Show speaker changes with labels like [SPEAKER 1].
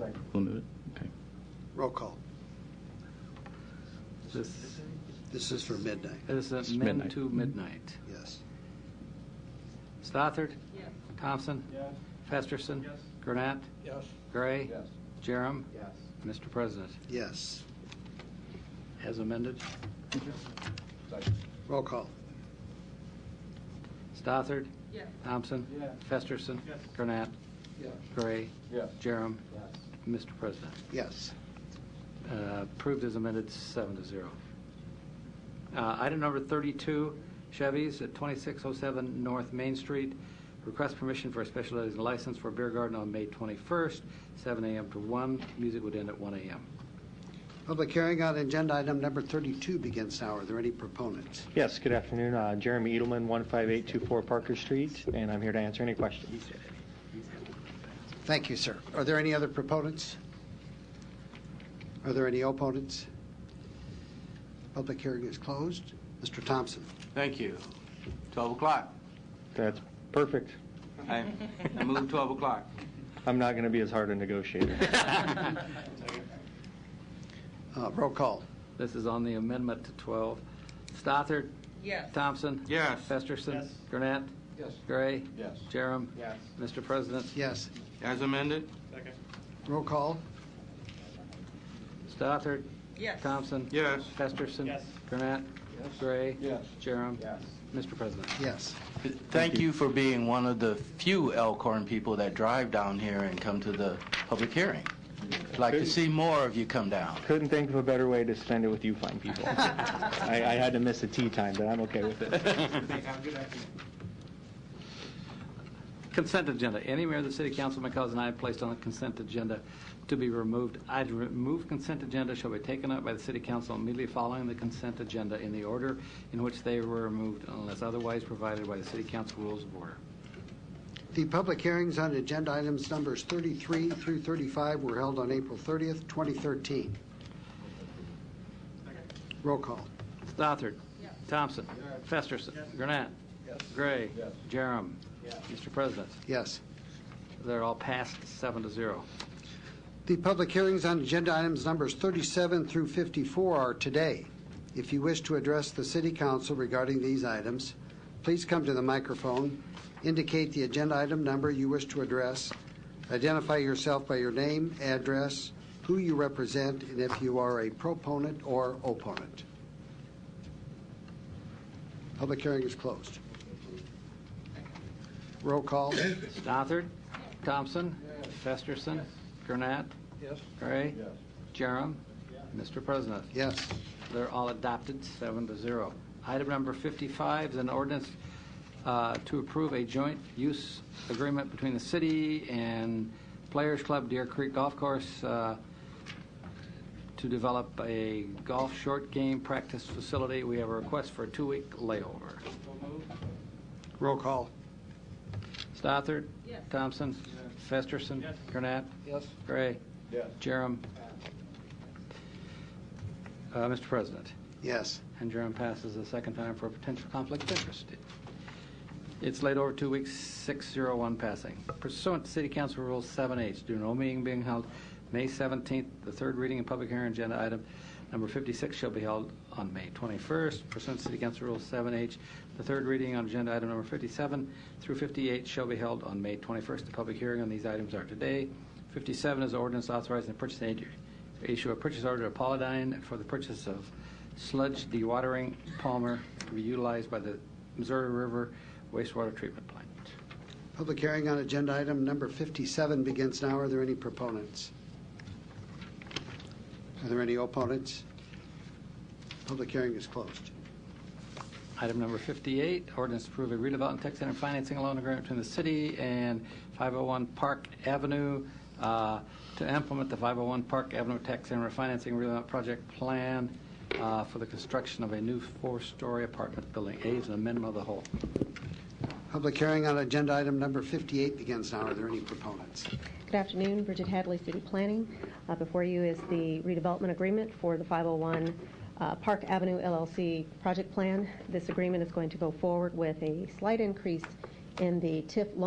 [SPEAKER 1] it.
[SPEAKER 2] We'll move it. Okay.
[SPEAKER 3] Roll call.
[SPEAKER 1] This,
[SPEAKER 3] This is for midnight,
[SPEAKER 1] this
[SPEAKER 2] It's
[SPEAKER 1] is amend
[SPEAKER 2] midnight.
[SPEAKER 1] to midnight.
[SPEAKER 3] yes.
[SPEAKER 1] Stothard? Thompson? Festerson? Gurnett?
[SPEAKER 4] Yes.
[SPEAKER 1] Gray?
[SPEAKER 4] Yes.
[SPEAKER 1] Jerem?
[SPEAKER 4] Yes.
[SPEAKER 1] Mr. President,
[SPEAKER 3] Yes.
[SPEAKER 1] as amended.
[SPEAKER 4] Second.
[SPEAKER 3] Roll call.
[SPEAKER 1] Stothard? Thompson?
[SPEAKER 4] Yeah.
[SPEAKER 1] Festerson? Gurnett?
[SPEAKER 4] Yes.
[SPEAKER 1] Gray?
[SPEAKER 4] Yes.
[SPEAKER 1] Jerem?
[SPEAKER 4] Yes.
[SPEAKER 1] Mr. President,
[SPEAKER 3] Yes.
[SPEAKER 1] uh, approved as amended, seven to zero. Uh, Item number 32, Chevy's at 2607 North Main Street. Request permission for a special license for beer garden on May 21st, 7 a.m. to 1. Music would end at 1 a.m.
[SPEAKER 3] Public hearing on agenda item number 32 begins now. Are there any proponents?
[SPEAKER 5] Yes, good afternoon. Uh, Jeremy Edelman, 15824 Parker Street, and I'm here to answer any questions.
[SPEAKER 3] Thank you, sir. Are there any other proponents? Are there any opponents? Public hearing is closed. Mr. Thompson.
[SPEAKER 6] Thank you. 12 o'clock.
[SPEAKER 5] That's perfect.
[SPEAKER 6] I I move 12 o'clock.
[SPEAKER 5] I'm not going to be as hard a negotiator.
[SPEAKER 3] Uh, Roll call.
[SPEAKER 1] This is on the amendment to 12. Stothard?
[SPEAKER 7] Yes.
[SPEAKER 1] Thompson?
[SPEAKER 6] Yes.
[SPEAKER 1] Festerson?
[SPEAKER 4] Yes.
[SPEAKER 1] Gurnett?
[SPEAKER 4] Yes.
[SPEAKER 1] Gray?
[SPEAKER 4] Yes.
[SPEAKER 1] Jerem?
[SPEAKER 4] Yes.
[SPEAKER 1] Mr. President?
[SPEAKER 3] Yes.
[SPEAKER 6] As amended?
[SPEAKER 4] Second.
[SPEAKER 3] Roll call.
[SPEAKER 1] Stothard?
[SPEAKER 7] Yes.
[SPEAKER 1] Thompson?
[SPEAKER 6] Yes.
[SPEAKER 1] Festerson?
[SPEAKER 4] Yes.
[SPEAKER 1] Gurnett?
[SPEAKER 4] Yes.
[SPEAKER 1] Gray?
[SPEAKER 4] Yes.
[SPEAKER 1] Jerem?
[SPEAKER 4] Yes.
[SPEAKER 1] Mr. President?
[SPEAKER 3] Yes.
[SPEAKER 6] Thank you for being one of the few Elkhorn people that drive down here and come to the public hearing. I'd Like to see more of you come down.
[SPEAKER 5] Couldn't think of a better way to spend it with you fine people. I I had to miss a tea time, but I'm okay with it.
[SPEAKER 1] Consent agenda. Any mayor of the city council may cause an item placed on the consent agenda to be removed. Item removed consent agenda shall be taken up by the city council immediately following the consent agenda in the order in which they were removed unless otherwise provided by the city council rules of order.
[SPEAKER 3] The public hearings on agenda items numbers 33 through 35 were held on April 30th, 2013. Roll call.
[SPEAKER 1] Stothard. Thompson. Festerson. Gurnett.
[SPEAKER 4] Yes.
[SPEAKER 1] Gray.
[SPEAKER 4] Yes.
[SPEAKER 1] Jerem.
[SPEAKER 4] Yes.
[SPEAKER 1] Mr. President,
[SPEAKER 3] Yes.
[SPEAKER 1] they're all passed seven to zero.
[SPEAKER 3] The public hearings on agenda items numbers 37 through 54 are today. If you wish to address the city council regarding these items, please come to the microphone, indicate the agenda item number you wish to address, identify yourself by your name, address, who you represent, and if you are a proponent or opponent. Public hearing is closed. Roll call.
[SPEAKER 1] Stothard. Thompson. Festerson. Gurnett.
[SPEAKER 4] Yes.
[SPEAKER 1] Gray.
[SPEAKER 4] Yes.
[SPEAKER 1] Jerem. Mr. President,
[SPEAKER 3] Yes.
[SPEAKER 1] They're all adopted, seven to zero. Item number 55 is an ordinance uh, to approve a joint use agreement between the city and Players Club Deer Creek Golf Course uh, to develop a golf short game practice facility. We have a request for a two-week layover.
[SPEAKER 3] Roll call.
[SPEAKER 1] Stothard?
[SPEAKER 7] Yes.
[SPEAKER 1] Thompson? Festerson? Gurnett?
[SPEAKER 4] Yes.
[SPEAKER 1] Gray?
[SPEAKER 4] Yes.
[SPEAKER 1] Jerem? Uh, Mr. President?
[SPEAKER 3] Yes.
[SPEAKER 1] And Jerem passes a second time for a potential conflict of interest. It's laid over two weeks, 601 passing. Pursuant to City Council Rule 7H, due to no meeting being held May 17th, the third reading and public hearing agenda item number 56 shall be held on May 21st. Pursuant to City Council Rule 7H, the third reading on agenda item number 57 through 58 shall be held on May 21st. The public hearing on these items are today. 57 is ordinance authorizing the purchase agent to issue a purchase order to Pauladine for the purchase of sludge dewatering Palmer to be utilized by the Missouri River wastewater treatment plant.
[SPEAKER 3] Public hearing on agenda item number 57 begins now. Are there any proponents? Are there any opponents? Public hearing is closed.
[SPEAKER 1] Item number 58, ordinance to approve a redevelopment tax center financing loan agreement between the city and 501 Park Avenue uh, to implement the 501 Park Avenue Tax Center Financing Redevelopment Project Plan uh, for the construction of a new four-story apartment building. A is an amendment of the whole.
[SPEAKER 3] Public hearing on agenda item number 58 begins now. Are there any proponents?
[SPEAKER 8] Good afternoon, Bridget Hadley, City Planning. Uh, Before you is the redevelopment agreement for the 501 uh, Park Avenue LLC project plan. This agreement is going to go forward with a slight increase in the TIF loan